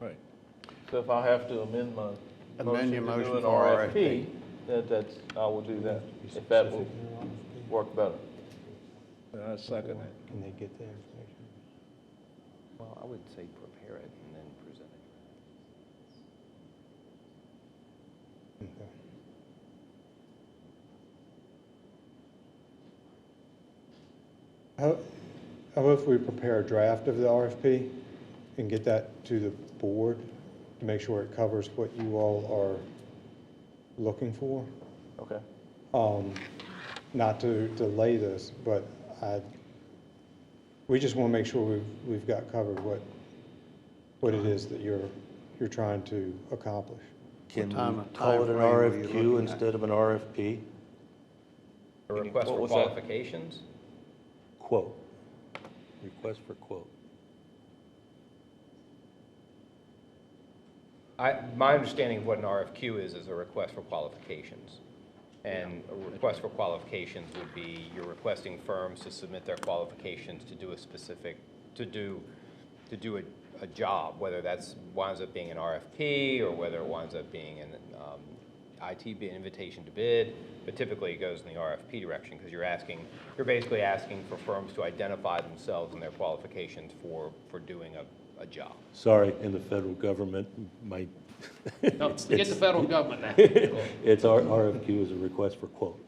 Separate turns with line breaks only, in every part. Right.
So if I have to amend my.
Amend your
to do
motion
an
for
RFP, that, that's, I will do that, if that will work better.
And I second it.
Can they get that information?
Well, I would say prepare it and then present it.
Okay. How, how if we prepare a draft of the RFP and get that to the board to make sure it covers what you all are looking for?
Okay.
Um, Not to delay this, but I, we just want to make sure we've, we've got covered what, what it is that you're, you're trying to accomplish.
Can we
time-
call it an
timeframe were you
RFQ
looking at?
instead of an RFP?
A request for qualifications?
Quote. Request for quote.
I, my understanding of what an RFQ is, is a request for qualifications. And a request for qualifications would be, you're requesting firms to submit their qualifications to do a specific, to do, to do a, a job, whether that's, winds up being an RFP, or whether it winds up being an um, IT bid, invitation to bid, but typically it goes in the RFP direction, because you're asking, you're basically asking for firms to identify themselves and their qualifications for, for doing a, a job.
Sorry, in the federal government, my,
No, Get the federal government now.
it's, our RFQ is a request for quote.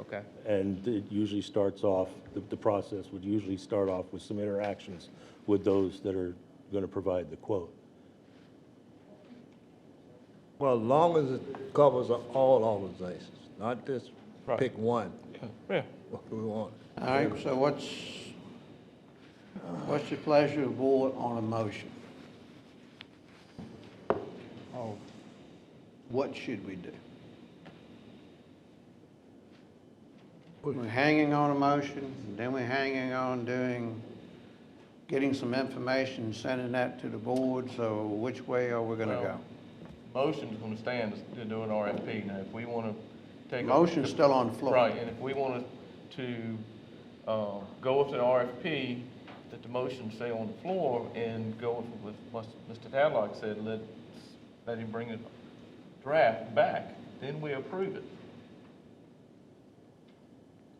Okay.
And it usually starts off, the, the process would usually start off with some interactions with those that are gonna provide the quote.
Well, as long as it covers all organizations, not just pick one,
Yeah.
what we want.
All right, so what's, what's the pleasure of the board on a motion?
Oh.
Or what should we do? We're hanging on a motion, and then we're hanging on doing, getting some information, sending that to the board, so which way are we gonna go?
Well, Motion's gonna stand to- to do an RFP. Now, if we wanna take. a-
Motion's still on the floor.
Right, and if we wanted to, uh, go with an RFP, that the motion stay on the floor and go with what Mus- Mr. Tadlock said, let, let him bring the draft back, then we approve it.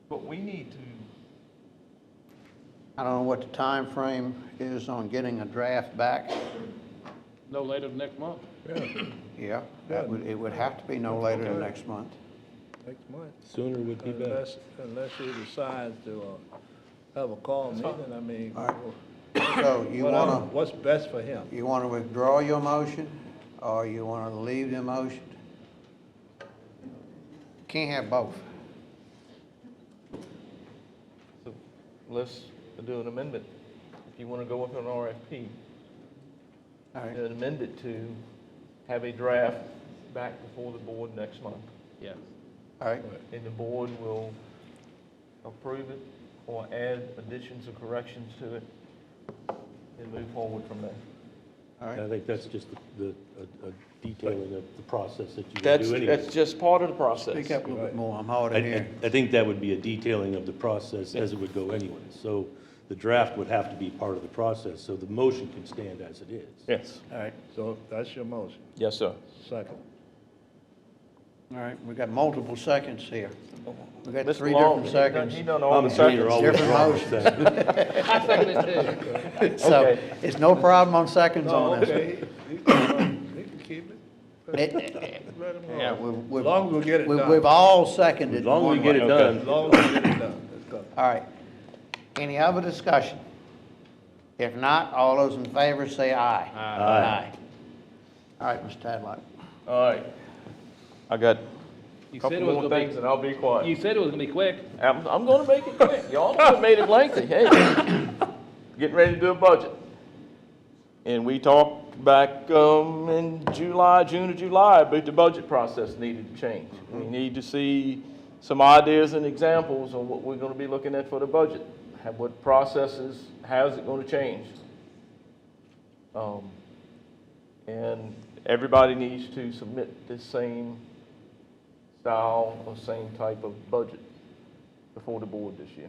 But we need to,
I don't know what the time frame is on getting a draft back.
No later than next month.
Yeah, that would, it would have to be no later than next month.
Next month.
Sooner would be better.
Unless, unless you decide to uh, have a call meeting, I mean,
All right. So you
what-
wanna,
what's best for him?
you wanna withdraw your motion, or you wanna leave the motion? Can't have both.
so let's do an amendment. If you wanna go with an RFP,
All right,
and amend it to have a draft back before the board next month.
Yeah.
all right,
And the board will approve it or add additions or corrections to it and move forward from there.
all
And I
right.
think that's just the, the- a- a detailing of the process that you would do
That's,
anyway.
that's just part of the process.
Speak up a little bit more, I'm hard
I-
of
I,
hearing.
I think that would be a detailing of the process as it would go anyway. So the draft would have to be part of the process, so the motion can stand as it is.
Yes,
All right,
So that's your motion,
yes, sir.
second.
all right, we got multiple seconds here. We got
Mr.
three
Long,
different
he done- He
seconds,
done all the
I'm sure you're
seconds.
always
Different
wrong with that.
I second it too.
so
Okay.
it's no problem on seconds
No,
on this.
Oh, okay, he he can he can keep it,
It-
let him
Yeah,
go.
we've,
As long as we
we've,
get it
we've-
done.
we've all seconded.
As long as we
one
get
way.
it
Okay,
done.
As long as we get it done, let's go.
All right. Any other discussion? If not, all those in favor say aye. Aye. All right, Mr. Tadlock.
All right. I got a
You said
couple
it was
more
gonna be-
things and I'll be
You
quiet.
said it was gonna be quick.
I'm, I'm gonna make it quick. Y'all have made it lengthy, hey. Getting ready to do a budget. And we talked back, um, in July, June or July, about the budget process needed to change.
Mm-hmm.
We need to see some ideas and examples on what we're gonna be looking at for the budget. Have what processes, how's it gonna change? Um, and everybody needs to submit this same style or same type of budget before the board this year.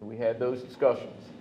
We had those discussions.